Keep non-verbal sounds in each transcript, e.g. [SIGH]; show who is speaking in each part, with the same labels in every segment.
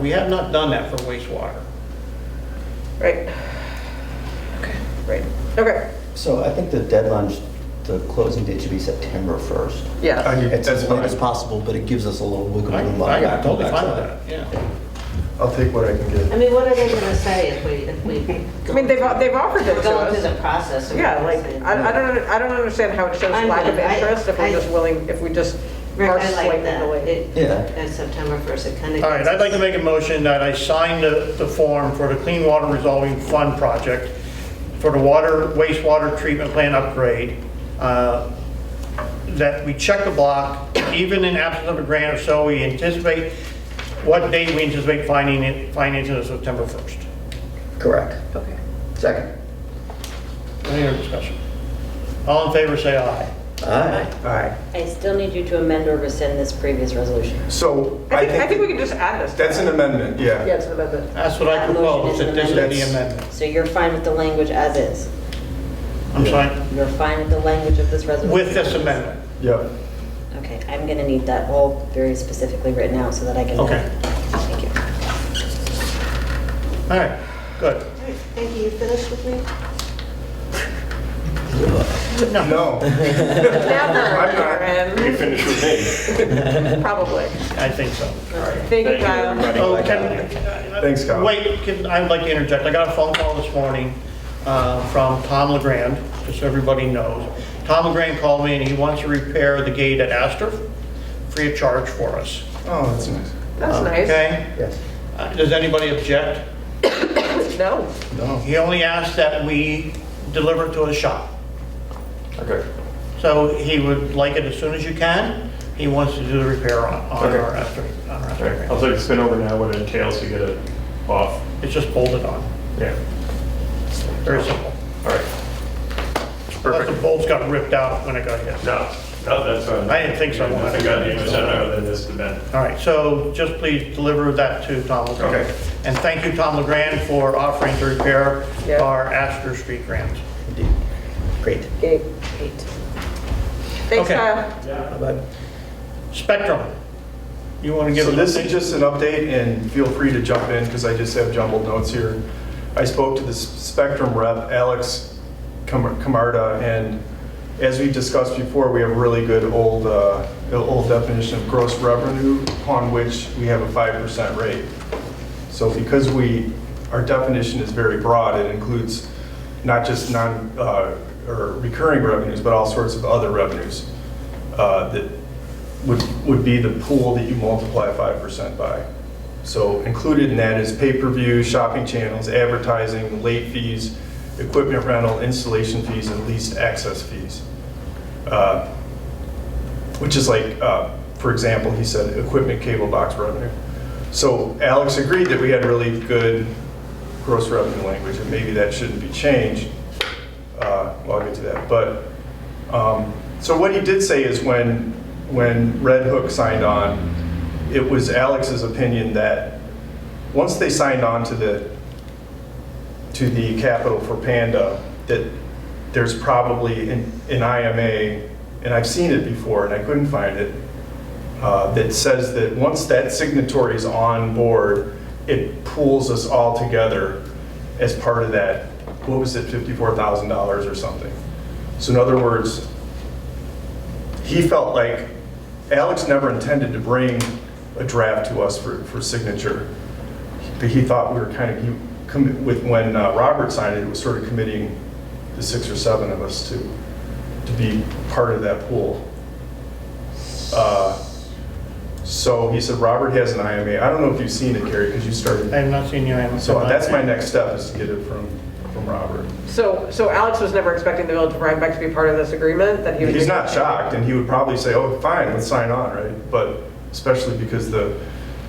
Speaker 1: We have not done that for wastewater.
Speaker 2: Right. Right, okay,
Speaker 3: So I think the deadline, sh- the closing date should be September 1st.
Speaker 2: yeah.
Speaker 4: I-
Speaker 3: It's as
Speaker 4: that's
Speaker 3: late as
Speaker 4: fine.
Speaker 3: possible, but it gives us a little wiggle
Speaker 1: I-
Speaker 3: room. on the
Speaker 1: I'm
Speaker 3: back-
Speaker 1: totally
Speaker 3: on the
Speaker 1: fine with
Speaker 3: backside.
Speaker 1: that, yeah.
Speaker 4: I'll take what I can
Speaker 5: I
Speaker 4: get.
Speaker 5: mean, what are they gonna say if we, if we? [LAUGHS]
Speaker 2: I mean, they've, they've offered it
Speaker 5: We're
Speaker 2: to
Speaker 5: going
Speaker 2: us.
Speaker 5: through the process. of-
Speaker 2: Yeah, like, I, I don't, I don't understand how it shows
Speaker 5: I'm
Speaker 2: lack of
Speaker 5: good. I-
Speaker 2: interest if
Speaker 5: I-
Speaker 2: we're just willing, if we just
Speaker 5: Rick,
Speaker 2: are
Speaker 5: I like
Speaker 2: slightly
Speaker 5: that.
Speaker 2: delayed.
Speaker 5: It-
Speaker 3: Yeah.
Speaker 5: At September 1st, it kind of.
Speaker 1: All right, I'd like to make a motion that I sign the, the form for the Clean Water Resolving Fund project for the water, wastewater treatment plant upgrade, uh, that we check the block, even in absence of a grant or so, we anticipate, what date we anticipate finding it, financing is September 1st.
Speaker 3: Correct.
Speaker 2: Okay.
Speaker 3: Second.
Speaker 1: Any other discussion? All in favor, say aye.
Speaker 3: All right.
Speaker 4: All right.
Speaker 6: I still need you to amend or rescind this previous resolution.
Speaker 4: So
Speaker 2: I think, I think we can just add this.
Speaker 4: that's an amendment,
Speaker 2: Yeah,
Speaker 4: yeah.
Speaker 2: it's an amendment.
Speaker 1: That's what I
Speaker 6: That motion
Speaker 1: propose,
Speaker 6: is an
Speaker 1: that this is the
Speaker 4: amendment.
Speaker 1: amendment.
Speaker 6: So you're fine with the language as is?
Speaker 1: I'm sorry,
Speaker 6: You're fine with the language of this resolution?
Speaker 1: with this amendment.
Speaker 4: Yeah.
Speaker 6: Okay, I'm going to need that all very specifically written out so that I can...
Speaker 1: Okay.
Speaker 6: Thank you.
Speaker 1: All right, good.
Speaker 5: Thank you, you finished with me?
Speaker 4: No.
Speaker 2: Now,
Speaker 7: You
Speaker 2: Karen,
Speaker 7: finish with
Speaker 2: [LAUGHS]
Speaker 7: me.
Speaker 2: probably.
Speaker 1: I think so.
Speaker 2: Thank you,
Speaker 7: Thank you,
Speaker 2: Kyle.
Speaker 7: everybody.
Speaker 1: Oh, can-
Speaker 4: Thanks, Kyle.
Speaker 1: Wait, can, I'd like to interject. I got a phone call this morning uh, from Tom LeGrand, just so everybody knows. Tom LeGrand called me and he wants to repair the gate at Astor free of charge for us,
Speaker 4: Oh, that's nice.
Speaker 2: That's nice.
Speaker 1: okay?
Speaker 3: Yes.
Speaker 1: Uh, Does anybody object?
Speaker 2: No,
Speaker 1: He only asked that we deliver it to his shop.
Speaker 4: Okay.
Speaker 1: So he would like it as soon as you can. He wants to do the repair on, on
Speaker 7: Okay.
Speaker 1: our after, on our
Speaker 7: All right, I'll
Speaker 1: after.
Speaker 7: take a spin over now what it entails to get it off.
Speaker 1: It's just bolted on,
Speaker 7: Yeah,
Speaker 1: very simple.
Speaker 7: all right.
Speaker 1: Plus the
Speaker 7: Perfect.
Speaker 1: bolts got ripped out when it got hit.
Speaker 7: No, no, that's fine.
Speaker 1: I didn't think so.
Speaker 7: Nothing got damaged other than this event.
Speaker 1: All right, so just please deliver that to Tom LeGrand.
Speaker 7: Okay.
Speaker 1: And thank you, Tom LeGrand, for offering to repair
Speaker 2: Yeah.
Speaker 1: our Astor Street grant.
Speaker 3: Indeed. Great.
Speaker 2: gate, eight. Thanks,
Speaker 1: Okay.
Speaker 2: Kyle.
Speaker 3: Bye-bye.
Speaker 1: Spectrum, you want to give
Speaker 4: So
Speaker 1: us?
Speaker 4: this is just an update, and feel free to jump in, because I just have jumbled notes here. I spoke to the S- Spectrum rep, Alex Cam- Camarda, and as we discussed before, we have really good old, uh, old definition of gross revenue, upon which we have a 5% rate. So because we, our definition is very broad, it includes not just non, uh, or recurring revenues, but all sorts of other revenues uh, that would, would be the pool that you multiply 5% by. So included in that is pay-per-view, shopping channels, advertising, late fees, equipment rental, installation fees, and leased access fees. Uh, Which is like, uh, for example, he said, equipment cable box revenue. So Alex agreed that we had really good gross revenue language, and maybe that shouldn't be changed. Uh, Well, I'll get to that, but, um, so what he did say is when, when Red Hook signed on, it was Alex's opinion that, once they signed on to the, to the capital for Panda, that there's probably an an IMA, and I've seen it before, and I couldn't find it, uh, that says that once that signatory is on board, it pulls us all together as part of that, what was it, $54,000 or something. So in other words, he felt like Alex never intended to bring a draft to us for, for signature. But he thought we were kind of, he, commi- with, when uh, Robert signed it, it was sort of committing the six or seven of us to, to be part of that pool. Uh, So he said, Robert has an IMA. I don't know if you've seen it, Gary, because you
Speaker 1: I
Speaker 4: started.
Speaker 1: have not seen you. I haven't-
Speaker 4: So that's my next step is to get it from, from Robert.
Speaker 2: So, so Alex was never expecting the village of Rhinebeck to be part of this agreement, that he would.
Speaker 4: He's
Speaker 2: be-
Speaker 4: not shocked, and he would probably say, oh, fine, let's sign on, right? But especially because the,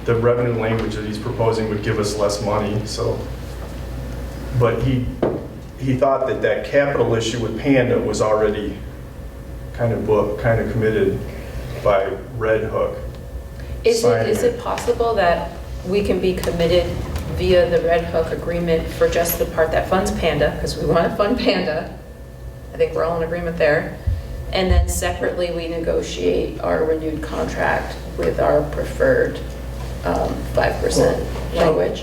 Speaker 4: the revenue language that he's proposing would give us less money, so. But he, he thought that that capital issue with Panda was already kind of book, kind of committed by Red Hook.
Speaker 8: Is it,
Speaker 4: signing
Speaker 8: is it possible that we can be committed via the Red Hook agreement for just the part that funds Panda, because we want to fund Panda? I think we're all in agreement there. And then separately, we negotiate our renewed contract with our preferred um, 5% language.